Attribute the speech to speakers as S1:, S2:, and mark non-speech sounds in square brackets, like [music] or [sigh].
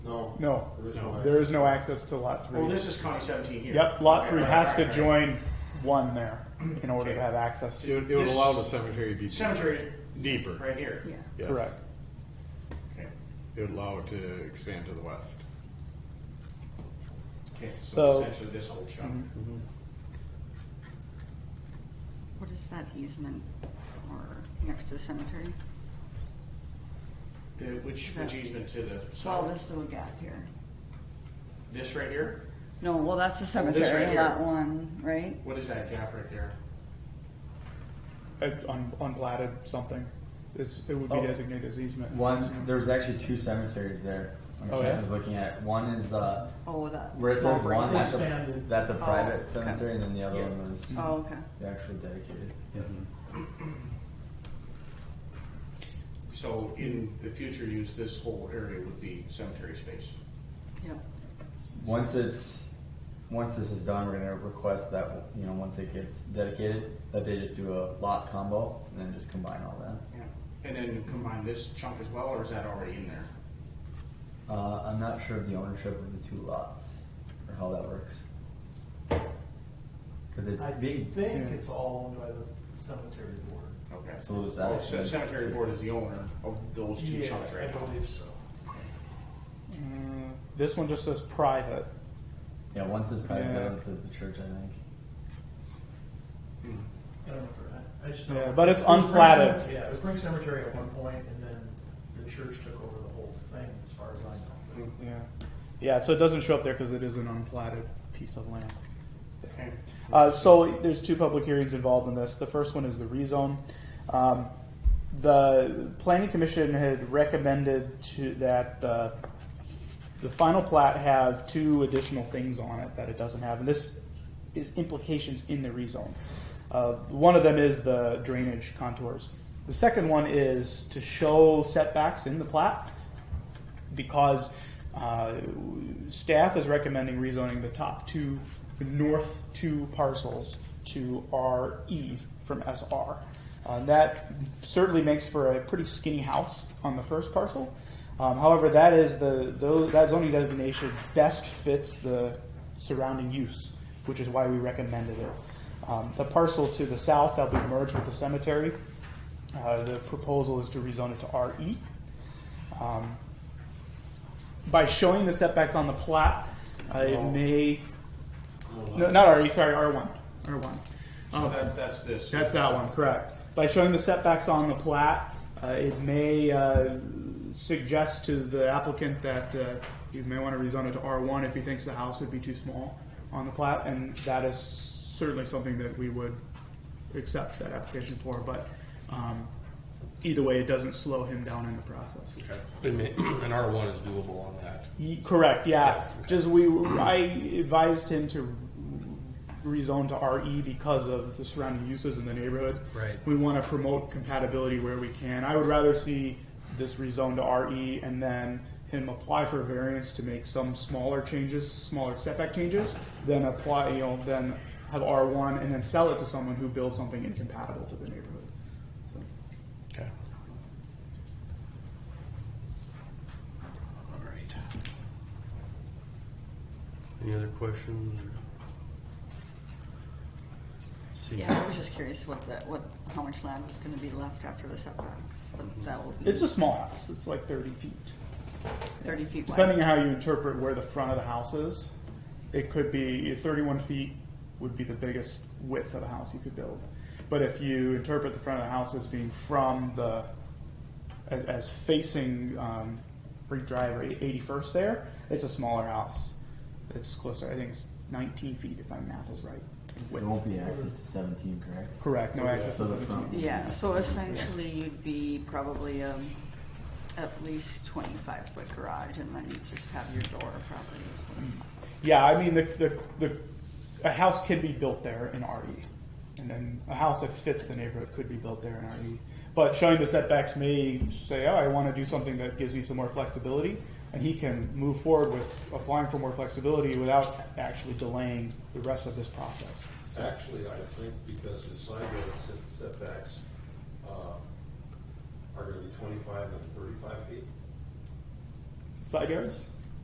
S1: No,
S2: There is no
S1: there is no access to lot
S3: Well,
S1: three.
S3: this is County 17 here.
S1: Yep, lot
S3: Okay,
S1: three
S3: right,
S1: has
S3: right,
S1: to
S3: right.
S1: join one there in order to have access.
S4: It would, it would
S3: This-
S4: allow the cemetery to be
S3: Cemetery is
S4: deeper.
S3: right here.
S5: Yeah.
S4: Yes.
S1: Correct.
S3: Okay.
S4: It would allow it to expand to the west.
S3: Okay. So,
S1: So- Mm-hmm.
S3: essentially, this whole chunk.
S5: What is that easement or next to cemetery?
S3: The, which which easement to the
S5: Well,
S3: south?
S5: this little gap here.
S3: This right here.
S5: No, well, that's the
S3: right
S5: cemetery,
S3: here.
S5: lot one, right?
S3: What is that gap right there?
S1: It's Un, unplatted something. It's, it would be
S6: Oh.
S1: designated as easement.
S6: One, there was actually two cemeteries there. When
S1: Oh,
S6: Ken
S1: yeah?
S6: was looking at one is the
S5: Oh, that.
S6: where it
S5: small
S6: says
S5: break.
S6: one. That's a,
S7: Expanded.
S6: that's a private
S5: okay.
S6: cemetery, and then the other one was
S5: Oh, okay.
S6: the actual dedicated.
S3: So in the future use, this whole area would be cemetery space.
S5: Yep.
S6: Once it's once this is done, we're gonna request that you know once it gets dedicated that they just do a lot combo and then just combine all that.
S3: Yeah. And then combine this chunk as well, or is that already in there?
S6: Uh, I'm not sure of the ownership of the two lots or how that works because it's
S7: I
S6: being
S7: think
S1: yeah.
S7: it's all owned by the cemetery board.
S3: Okay.
S6: So we'll just
S3: Oh,
S6: ask
S3: so
S6: them.
S3: cemetery board is the owner of those two
S7: Yeah,
S3: chunks right
S7: I
S3: now.
S7: believe so.
S1: Mm, This one just says private.
S6: yeah. Once it's private,
S1: Yeah.
S6: the other one says the church. I think.
S7: I don't know for, I just know.
S1: Yeah, but it's
S7: It was Brink
S1: unplatted.
S7: Cemetery- Yeah, it was Brink Cemetery at one point, and then the church took over the whole thing, as far as I know.
S1: Yeah. Yeah, so it doesn't show up there because it is an unplatted piece of land.
S3: Okay.
S1: Uh, so there's two public hearings involved in this. The first one is the rezone. Um, the planning commission had recommended to that uh, the final plat have two additional things on it that it doesn't have, and this is implications in the rezone. Uh, one of them is the drainage contours. The second one is to show setbacks in the plat because uh, staff is recommending rezoning the top two, the north two parcels to RE from SR. Uh, that certainly makes for a pretty skinny house on the first parcel. Um, however, that is the, tho- that zoning designation best fits the surrounding use, which is why we recommended it. Um, the parcel to the south that'll be merged with the cemetery. Uh, the proposal is to rezone it to E. RE by showing the setbacks on the plat, uh, it may, no, not RE, sorry, R1, R1.
S3: So Oh, that, that's this.
S1: That's that one, correct. By showing the setbacks on the plat, uh, it may uh, suggest to the applicant that uh, you may want to rezone it to R1 if he thinks the house would be too small on the plat, and that is certainly something that we would accept that application for, but um, either way, it doesn't slow him down in the process.
S2: And ma- [clears throat] and R one is doable on that.
S1: Ye- Correct. Yeah.
S2: Yeah.
S1: Just we, I advised him to rezone to RE because of the surrounding uses in the neighborhood.
S2: Right.
S1: We want to promote compatibility where we can. I would rather see this rezoned to RE and then him apply for variance to make some smaller changes, smaller setback changes, then apply, you know, then have R1 and then sell it to someone who builds something incompatible to the neighborhood.
S2: Okay. All right. Any other questions? See.
S5: Yeah, I was just curious what the, what, how much land was gonna be left after the setbacks, but that will be
S1: It's a small house. It's like 30 feet.
S5: thirty feet wide.
S1: Depending on how you interpret where the front of the house is, it could be thirty-one feet would be the biggest width of a house you could build. But if you interpret the front of the house as being from the, as, as facing, um, Brink Drive or eighty-first there, it's a smaller house. It's closer, I think it's nineteen feet if my math is right. in
S6: There
S1: width.
S6: won't be access to 17, correct?
S1: Correct, no access.
S6: So
S1: to
S6: the
S1: the-
S6: front.
S5: Yeah, so essentially you'd be probably, um, at least twenty-five foot garage and then you just have your door probably. is what-
S1: Yeah, I mean, the, the, the, a house can be built there in RE. And then a house that fits the neighborhood could be built there in RE. But showing the setbacks may say, oh, I want to do something that gives me some more flexibility. And he can move forward with applying for more flexibility without actually delaying the rest of this process.
S2: Actually, I think because the side yard set- setbacks uh, are gonna be twenty-five and thirty-five feet.
S1: Side yards?